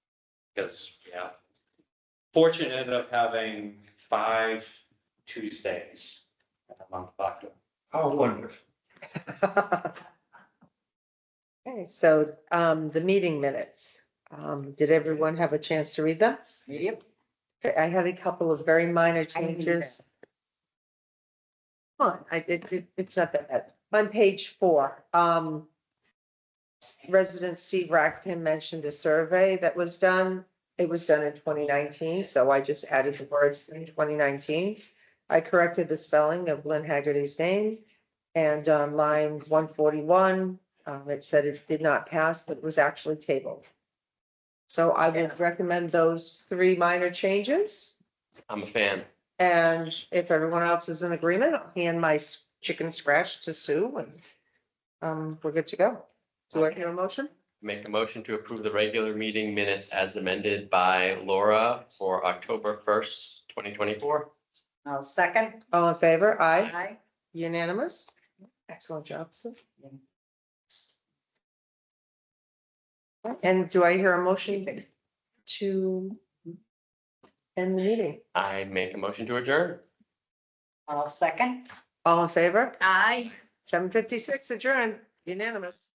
Because, yeah. Fortunate of having five Tuesdays in the month of How wonderful. October. Okay, so um, the meeting minutes, Um, did everyone have a chance to read them? Yep. Okay, I had a couple of very minor I didn't either. changes. Come on, I, it, it- it's not that bad. On page four, um, resident Steve Rackton mentioned a survey that was done. It was done in twenty nineteen, so I just added the words in twenty nineteen. I corrected the spelling of Lynn Haggerty's name. And on line one forty-one, um, it said it did not pass, but it was actually tabled. So I would recommend those three minor changes. I'm a fan. And if everyone else is in agreement, I'll hand my s- chicken scratch to Sue and um, we're good to go. Do I hear a motion? Make a motion to approve the regular meeting minutes as amended by Laura for October first, twenty twenty-four. I'll second. All in favor? Aye. Aye. Unanimous? Excellent job, Sue. And do I hear a motion to end the meeting? I make a motion to adjourn. I'll second. All in favor? Aye. Seven fifty-six adjourned, unanimous.